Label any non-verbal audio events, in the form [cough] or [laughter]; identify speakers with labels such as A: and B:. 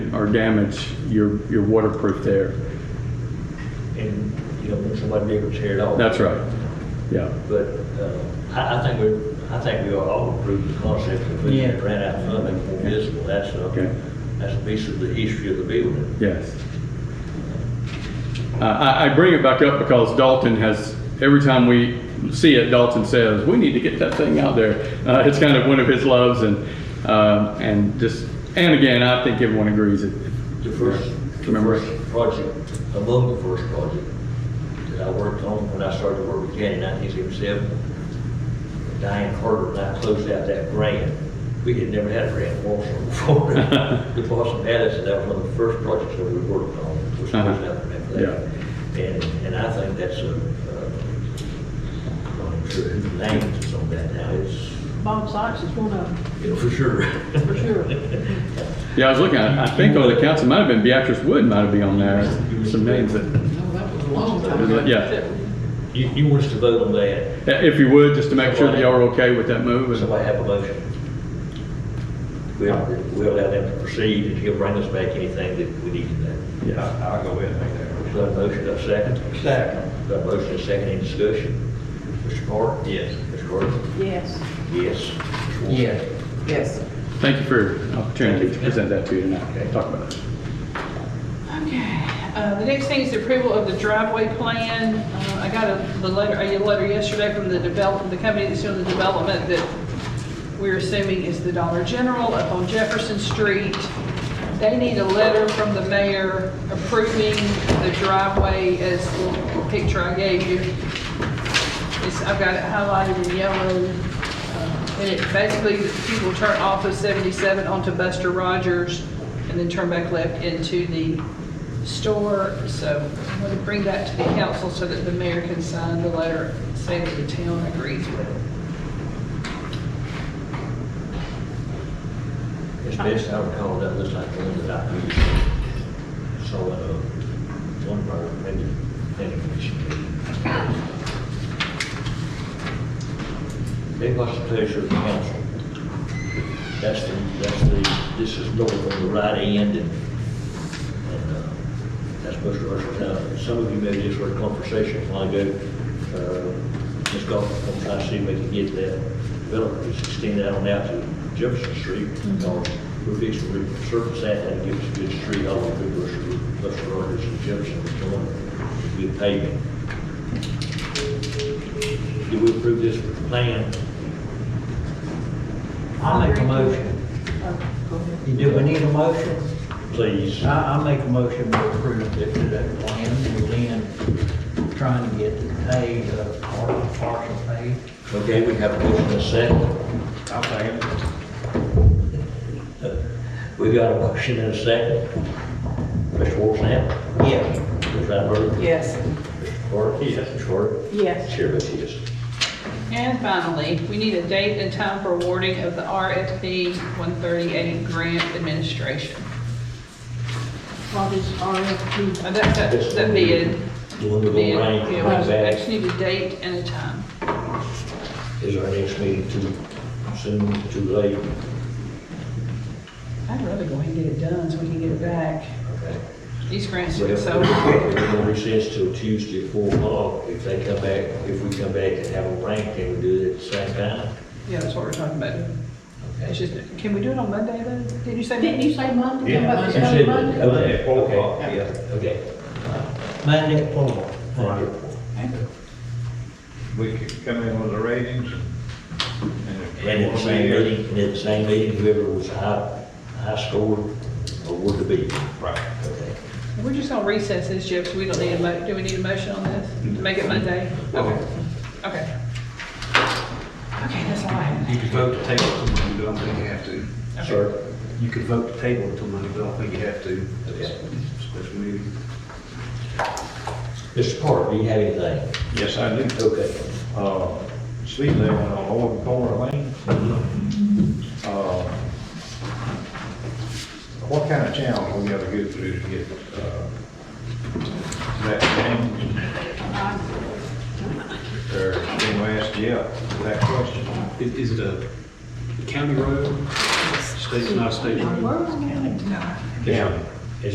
A: or damage, you're, you're waterproof there.
B: and you don't want somebody to be able to tear it off.
A: That's right. Yeah.
B: But uh, I, I think we, I think we ought to all approve the concept of we
C: Yeah.
B: ran out funding for municipal, that's
A: Okay.
B: a, that's a piece of the history of the building.
A: Yes. Uh, I, I bring it back up because Dalton has, every time we see it, Dalton says, we need to get that thing out there. Uh, it's kind of one of his loves and, uh, and just, and again, I think everyone agrees it.
B: The first, the
A: Remember.
B: first project, among the first project that I worked on when I started to work with Jan in nineteen seventy-seven, Diane Carter and I closed out that grant. We had never had a grant in Walsall [laughs] before. The Boston Madison, that was one of the first projects that we worked on, was
A: Uh-huh.
B: closing out the grant for that. And, and I think that's a, uh, I'm sure who names is on that now, it's,
D: Bob Sykes is one of them,
B: you know, for sure.
D: for sure.
A: Yeah, I was looking, I I think over the council, might have been Beatrice Wood might have been on there, some names that,
C: No, that was a long time
A: Is
C: ago.
A: it? Yeah.
B: [laughs] You, you want us to vote on that?
A: if you would, just to make sure that y'all are okay with that move. and-
B: Somebody have a motion? We'll, we'll allow them to proceed, and he'll bring us back anything that we need to know.
A: Yes.
E: I'll go ahead and make that.
B: Got a motion, got a second? Second. Got a motion, and a second, any discussion? Mr. Carter? Yes. Mr. Carter?
D: Yes.
B: Yes. Mr. Wolf?
C: Yeah. Yes.
A: Thank you for the opportunity to present that to you tonight, talk about it.
D: Okay, uh, the next thing is the approval of the driveway plan. Uh, I got a, the letter, a letter yesterday from the develop, the company that's doing the development that we're assuming is the Dollar General up on Jefferson Street. They need a letter from the mayor approving the driveway as the picture I gave you. It's, I've got it highlighted in yellow, uh, and it basically, people turn off of 77 onto Buster Rogers and then turn back left into the store. So I'm going to bring that to the council so that the mayor can sign the letter saying that the town agrees with it.
B: As best I recall, that looks like the one that I used. So, uh, one of our, maybe, maybe. Big what's the pleasure of the council? That's the, that's the, this is north on the right end and, and, uh, that's Buster Russell Town. Some of you may have just heard a conversation while ago, uh, Ms. Goff, I'm trying to see if we can get that developer to extend that on out to Jefferson Street. Or we're fixing to resurface that and give us a good street all the way through Buster, Buster Rogers and Jefferson, which one, good paving. Do we approve this plan?
F: I make a motion. Do we need a motion?
B: Please.
F: I, I make a motion to approve that that plan, we're then trying to get it paid, uh, partial, partial paid.
B: Okay, we have a motion and a second.
E: I'll second.
B: We got a motion and a second. Mr. Wolfson?
F: Yes.
B: Ms. Rattenberg?
D: Yes.
B: Mr. Carter? Yes. Mr. Carter?
D: Yes.
B: Chair votes yes.
D: And finally, we need a date and time for awarding of the RFP 138 grant administration.
C: What is RFP?
D: Uh, That's that that bid.
B: The one we're
D: Bid,
B: gonna rank,
D: yeah,
B: rank
D: we
B: back
D: just need a date and a time.
B: is our next meeting too soon, too late.
D: I'd rather go ahead and get it done so we can get it back.
B: Okay.
D: These grants
B: Well,
D: are so,
B: We're gonna recess till Tuesday at four o'clock. If they come back, if we come back and have a rank, can we do it at the same time?
D: yeah, that's what we're talking about.
B: Okay.
D: It's just, can we do it on Monday then? Did you say?
C: Didn't you say Monday?
E: Yeah,
C: About
B: You
C: this
B: said
C: Monday?
B: that, okay,
E: Yeah, four
B: okay,
E: o'clock.
B: yeah, okay.
F: Monday at four.
B: Right.
E: We could come in with the ratings.
B: And at the same meeting, and at the same meeting, whoever was high, high scored, award the bid.
E: Right.
B: Okay.
D: We're just gonna recess this, Jeff, so we don't need a mo, do we need a motion on this? Make it Monday? Okay. Okay. Okay, that's all I have.
G: You could vote to table it tomorrow, but I don't think you have to.
B: Sir?
G: You could vote to table it tomorrow, but I don't think you have to.
B: Okay.
G: Special meeting.
B: Mr. Carter, do you have anything?
E: Yes, I do.
B: Okay.
E: uh, sleep there on Old Corner Lane.
G: Mm-hmm.
E: Uh, What kind of channel we gotta get through to get, uh, that changed? Or, can we ask Jeff that question?
G: Is, is it a county road?
H: state's not a state road.
I: Where are we?
B: Yeah.